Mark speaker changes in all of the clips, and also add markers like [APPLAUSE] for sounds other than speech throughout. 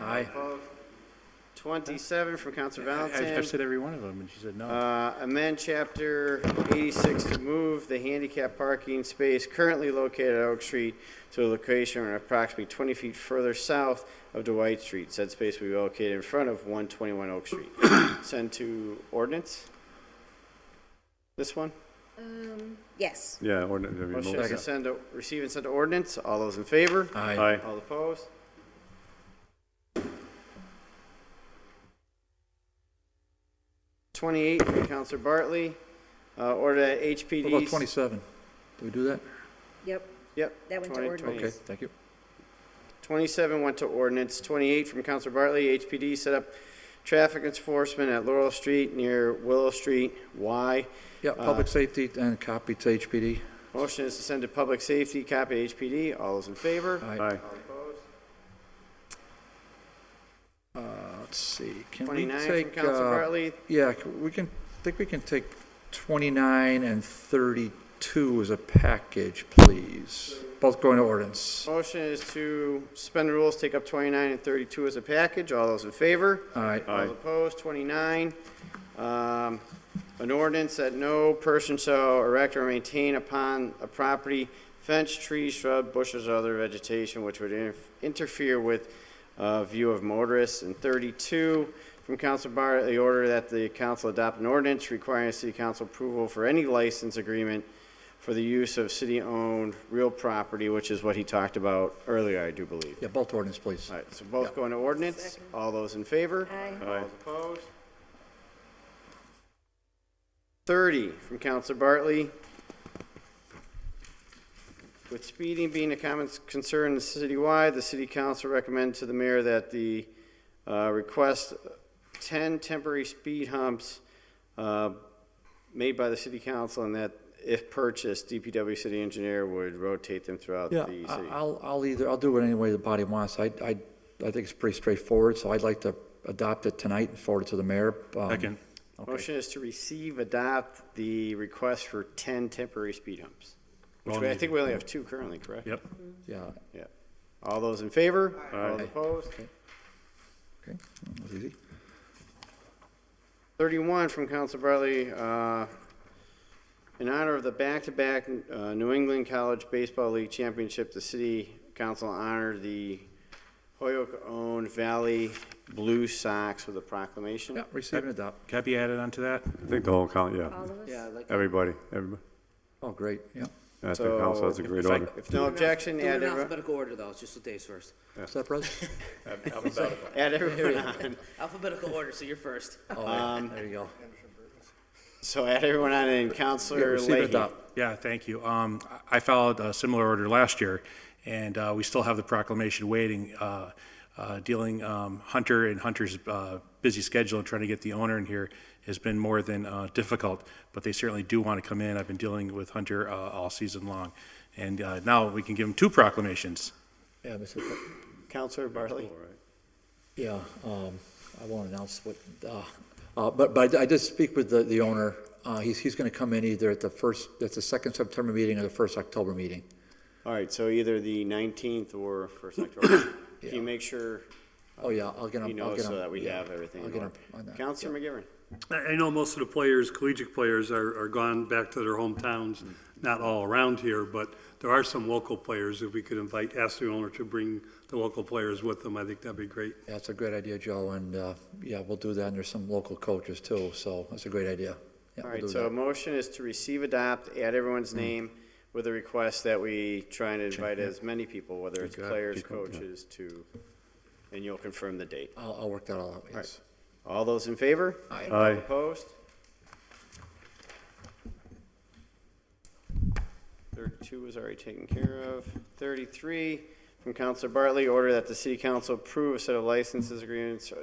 Speaker 1: Aye.
Speaker 2: Opposed? Twenty-seven from Counselor
Speaker 1: I've I've
Speaker 2: Valentin.
Speaker 1: said every one of them, and she said no.
Speaker 2: Uh, amend chapter eighty-six to move the handicap parking space currently located at Oak Street to a location approximately twenty feet further south of Dwight Street. Said space will be located in front of one twenty-one Oak Street.
Speaker 1: [COUGHS]
Speaker 2: Send to ordinance? This one?
Speaker 3: Um, yes.
Speaker 4: Yeah, ordinance, I mean,
Speaker 2: Motion
Speaker 4: mo-
Speaker 2: is to send, to- receive and send to ordinance. All those in favor?
Speaker 4: aye,
Speaker 2: All opposed? Twenty-eight from Counselor Bartley, uh, order that HPD.
Speaker 1: What about 27? Did we do that?
Speaker 3: Yep.
Speaker 2: Yep.
Speaker 3: That went to
Speaker 2: 20,
Speaker 3: ordinance.
Speaker 1: Okay,
Speaker 3: Yes.
Speaker 1: thank you.
Speaker 2: 27 went to ordinance. 28 from Counselor Bartley, HPD set up traffic enforcement at Laurel Street near Willow Street. Why?
Speaker 1: Yeah,
Speaker 2: Uh,
Speaker 1: public safety and copy to HPD.
Speaker 2: Motion is to send to public safety, copy to HPD. All those in favor?
Speaker 1: Aye.
Speaker 4: aye,
Speaker 1: Uh, Let's see, can we
Speaker 2: 29 from
Speaker 1: take,
Speaker 2: Counselor
Speaker 1: uh,
Speaker 2: Bartley,
Speaker 1: yeah, c- we can, I think we can take 29 and 32 as a package, please. Both going to ordinance.
Speaker 2: Motion is to suspend the rules, take up 29 and 32 as a package. All those in favor?
Speaker 1: Aye.
Speaker 4: Aye.
Speaker 2: All opposed, 29. Um, An ordinance that no person shall erect or maintain upon a property fence, tree, shrub, bushes, or other vegetation which would inter- interfere with uh, view of motorists. And 32, from Council Bartley, order that the council adopt an ordinance requiring city council approval for any license agreement for the use of city-owned real property, which is what he talked about earlier, I do believe.
Speaker 1: Yeah, both ordinance, please.
Speaker 2: All right, so both go into ordinance. All those in favor?
Speaker 3: Aye.
Speaker 2: All those opposed? 30 from Counselor Bartley. With speeding being a common s- concern citywide, the city council recommends to the mayor that the uh, request 10 temporary speed humps uh, made by the city council and that if purchased, DPW city engineer would rotate them throughout
Speaker 1: Yeah,
Speaker 2: the city.
Speaker 1: I- I'll, I'll either, I'll do it any way the body wants. I, I, I think it's pretty straightforward, so I'd like to adopt it tonight and forward it to the mayor. Um,
Speaker 4: Second.
Speaker 2: Motion is to receive, adopt the request for 10 temporary speed humps. Which we, I think we only have two currently, correct?
Speaker 4: yep,
Speaker 1: Yeah,
Speaker 2: Yeah. All those in favor? All
Speaker 4: Aye.
Speaker 2: opposed?
Speaker 1: okay, that was easy.
Speaker 2: 31 from Council Bartley, uh, in honor of the back-to-back uh, New England College Baseball League Championship, the city council honored the Hoyoke-owned Valley Blue Sox with a proclamation.
Speaker 1: Yeah, receive and adopt.
Speaker 5: Can I be added onto that?
Speaker 4: I think the whole count, yeah,
Speaker 3: All of us?
Speaker 4: everybody, everybody,
Speaker 1: Oh, great, yeah.
Speaker 4: I think
Speaker 2: So-
Speaker 4: council, that's a great
Speaker 5: If I-
Speaker 4: order.
Speaker 2: If no objection,
Speaker 6: Do it
Speaker 2: add
Speaker 6: in
Speaker 2: everyone,
Speaker 6: alphabetical order, though, it's just what Dave's first.
Speaker 1: Is that present?
Speaker 2: add
Speaker 6: [LAUGHS]
Speaker 2: everyone on.
Speaker 6: Alphabetical order, so you're first.
Speaker 1: Oh, yeah, there you go.
Speaker 2: So add everyone on and
Speaker 1: Yeah,
Speaker 2: Counselor
Speaker 1: Receive and
Speaker 2: Leahy.
Speaker 1: adopt.
Speaker 5: Yeah, thank you. Um, I I followed a similar order last year, and uh, we still have the proclamation waiting, uh, uh, dealing um, Hunter and Hunter's uh, busy schedule and trying to get the owner in here has been more than uh, difficult, but they certainly do want to come in. I've been dealing with Hunter uh, all season long, and uh, now we can give him two proclamations.
Speaker 1: [LAUGHS] Yeah, Mr. Pre-
Speaker 2: Counselor Bartley.
Speaker 1: Yeah, um, I won't announce what, uh, uh, but, but I did speak with the, the owner. Uh, he's, he's gonna come in either at the first, at the second September meeting or the first October meeting.
Speaker 2: All right, so either the 19th or
Speaker 6: [COUGHS]
Speaker 2: 1st October. Can you make sure
Speaker 1: Oh, yeah, I'll get him.
Speaker 2: he
Speaker 1: I'll
Speaker 2: knows
Speaker 1: get him-
Speaker 2: so that we
Speaker 1: yeah,
Speaker 2: have everything
Speaker 1: I'll
Speaker 2: in
Speaker 1: get him
Speaker 2: order?
Speaker 1: on that.
Speaker 2: Counselor McGivern.
Speaker 7: I I know most of the players, collegiate players, are, are gone back to their hometowns, not all around here, but there are some local players, if we could invite, ask the owner to bring the local players with them, I think that'd be great.
Speaker 1: Yeah, That's a great idea, Joe, and, uh, yeah, we'll do that, and there's some local coaches too, so that's a great idea. Yeah,
Speaker 2: All
Speaker 1: we'll
Speaker 2: right,
Speaker 1: do
Speaker 2: so a
Speaker 1: that. Mm.
Speaker 2: motion is to receive, adopt, add everyone's name with a request that we try and invite as many people, whether it's players, coaches, to, and you'll confirm the date.
Speaker 1: I'll, I'll work that all out, yes.
Speaker 2: All those in favor?
Speaker 1: Aye.
Speaker 4: Aye.
Speaker 2: Opposed? 32 was already taken care of. 33 from Counselor Bartley, order that the city council approve a set of licenses agreements. So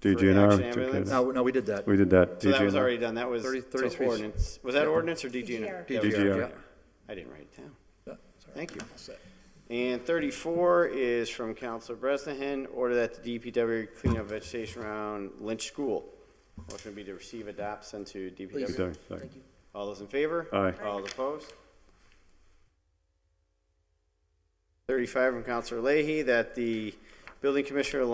Speaker 4: DGNR.
Speaker 2: action ambulance?
Speaker 4: okay,
Speaker 1: No, no, we did that.
Speaker 4: We did that.
Speaker 2: that was
Speaker 4: DGNR.
Speaker 2: already done, that was
Speaker 1: Thirty-
Speaker 2: to
Speaker 1: 33.
Speaker 2: ordinance. Was that ordinance or DGNR?
Speaker 3: DGNR.
Speaker 2: Yeah,
Speaker 4: DGNR.
Speaker 1: Yeah,
Speaker 2: I didn't write it down.
Speaker 1: yeah, sorry.
Speaker 2: Thank you.
Speaker 1: All set.
Speaker 2: And 34 is from Counselor Bresnahan, order that the DPW clean up vegetation around Lynch School. Motion would be to receive, adopt, send to DPW.
Speaker 3: Please.
Speaker 4: Sorry, sorry.
Speaker 2: All those in favor?
Speaker 4: Aye.
Speaker 2: All opposed? Thirty-five from Counselor Leahy, that the building commissioner